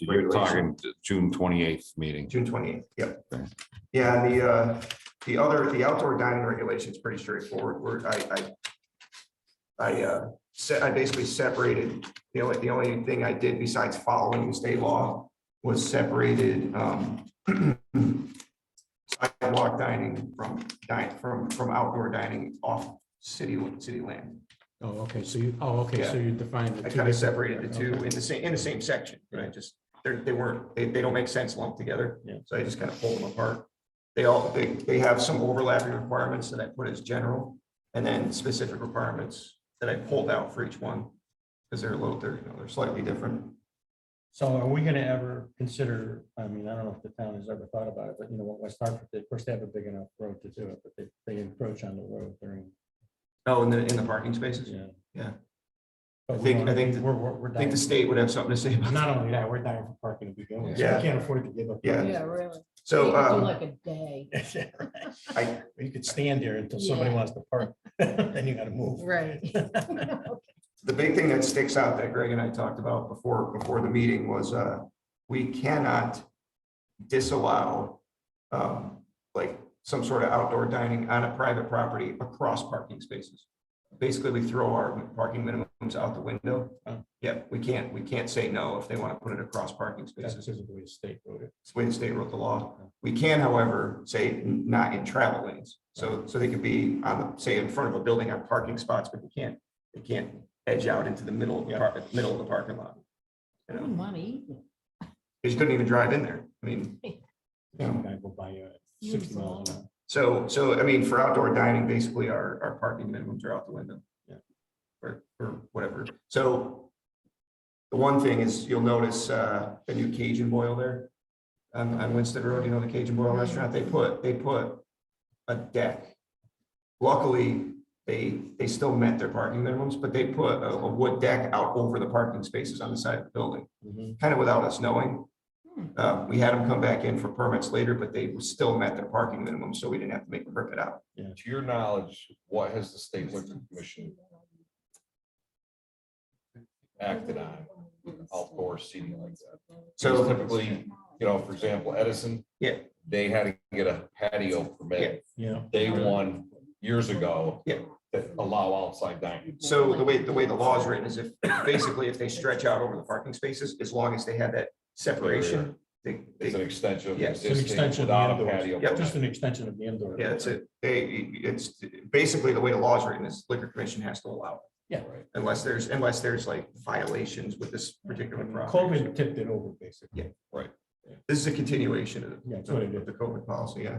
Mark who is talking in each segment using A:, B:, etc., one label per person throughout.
A: You're talking June twenty-eighth meeting.
B: June twenty-eighth, yep.
A: Okay.
B: Yeah, and the, uh, the other, the outdoor dining regulation is pretty straightforward, where I, I I, uh, se- I basically separated, the only, the only thing I did besides following the state law was separated, um, sidewalk dining from, dine, from, from outdoor dining off city, city land.
C: Oh, okay, so you, oh, okay, so you defined. the
B: I
C: two
B: kind
C: different-
B: of separated the two
C: okay.
B: in the same, in the same section, and I just, they're, they weren't, they, they don't make sense lumped together.
C: Yeah.
B: So I just kind of pulled them apart. They all, they, they have some overlapping requirements that I put as general, and then specific requirements that I pulled out for each one. Because they're a little, they're, you know, they're slightly different.
D: So are we gonna ever consider, I mean, I don't know if the town has ever thought about it, but you know, what West Hartford did, of course, they have a big enough road to do it, but they, they encroach on the road during,
B: Oh, in the, in the parking spaces?
D: yeah.
B: Yeah.
D: But
B: I
D: we
B: think-
D: wanna-
B: I think the-
D: We're, we're, we're
B: I think
D: dying,
B: the state would have something to say about that.
D: not only that, we're dying for parking to begin with. so
B: Yeah.
D: We can't afford to give up.
B: Yeah,
E: Yeah, really.
B: so,
E: You could do
B: um,
E: Like a day,
B: I,
D: You could stand there until somebody
E: Yeah.
D: wants to park, then you gotta move.
E: right.
B: the big thing that sticks out that Greg and I talked about before, before the meeting was, uh, we cannot disallow, um, like some sort of outdoor dining on a private property across parking spaces. Basically, we throw our parking minimums out the window.
D: Oh.
B: Yeah, we can't, we can't say no if they want to put it across parking
D: That's
B: spaces.
D: just the way the state wrote it.
B: It's the way the state wrote the law. We can, however, say n- not in travel lanes. So, so they could be on, the say, in front of a building on parking spots, but we can't, they can't edge out into the middle of the, par- middle of the parking lot. You know,
E: Money.
B: because you couldn't even drive in there. I mean, Yeah.
D: Some guy go by you at sixty miles an hour.
B: so, so, I mean, for outdoor dining, basically our, our parking minimums are out the window.
D: Yeah.
B: Or, or whatever. So the one thing is you'll notice, uh, the new Cajun boil there on, on Winston Road, you know, the Cajun boil restaurant, they put, they put a deck. Luckily, they, they still met their parking minimums, but they put a, a wood deck out over the parking spaces on the side of the building.
E: Mm-hmm.
D: Mhm.
B: kind of without us knowing.
E: Hmm.
B: Uh, we had them come back in for permits later, but they still met their parking minimum, so we didn't have to make them rip it out.
F: To your knowledge, what has the state liquor commission acted on outdoor seating like that?
B: So-
F: Typically, You know, for example, Edison.
B: Yeah.
F: They had to get a patio permit.
D: Yeah.
F: They won years ago.
B: Yeah.
F: That allow outside dining.
B: So the way, the way the law is written is if, basically if they stretch out over the parking spaces, as long as they have that separation, they,
F: It's an
B: they,
F: extension. of
B: Yeah, it's
D: an
F: existing
D: extension of the
F: without a
D: outdoors.
F: patio
B: Yeah.
F: permit.
D: Just an extension of the indoor.
B: yeah, that's it. They, it's, basically the way the law is written is liquor commission has to allow. it.
D: Yeah.
B: Unless there's, unless there's like violations with this particular property.
D: COVID tipped it over, basically.
B: This is a continuation of the
D: Yeah, that's what it
B: of
D: is.
B: the COVID policy, yeah.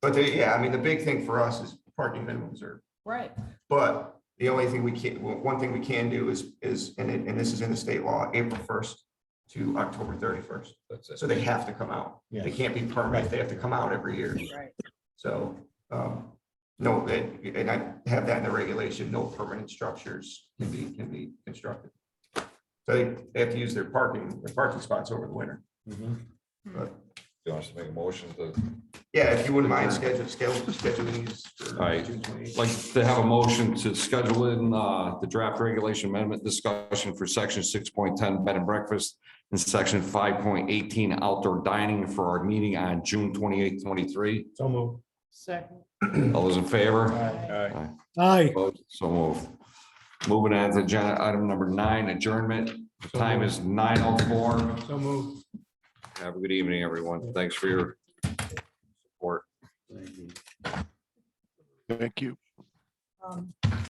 B: But they, yeah, I mean, the big thing for us is parking minimums are
E: Right.
B: But the only thing we can, well, one thing we can do is, is, and it, and this is in the state law, April first to October thirty-first.
F: That's it.
B: So they have to come out. They
D: Yeah.
B: can't be permanent. They have to come out every year.
E: Right.
B: So, um, no, and, and I have that in the regulation, no permanent structures can be, can be constructed. So they, they have to use their parking, their parking spots over the winter.
D: Mhm.
F: You want us to make a motion to,
B: Yeah, if you wouldn't mind schedule, schedule, schedule these. uh, for
A: Aye.
B: June 28th.
A: Like to have a motion to schedule in uh, the draft regulation amendment discussion for section six point ten bed and breakfast and section five point eighteen outdoor dining for our meeting on June twenty-eighth, twenty-three.
D: So move.
E: Second.
A: All those in favor?
D: Aye.
G: Aye.
A: Opposed? So move. Moving on to agenda item number nine, adjournment. The Time is nine oh four.
D: So move.
A: Have a good evening, everyone. Thanks for your support.
G: Thank you.
E: Um,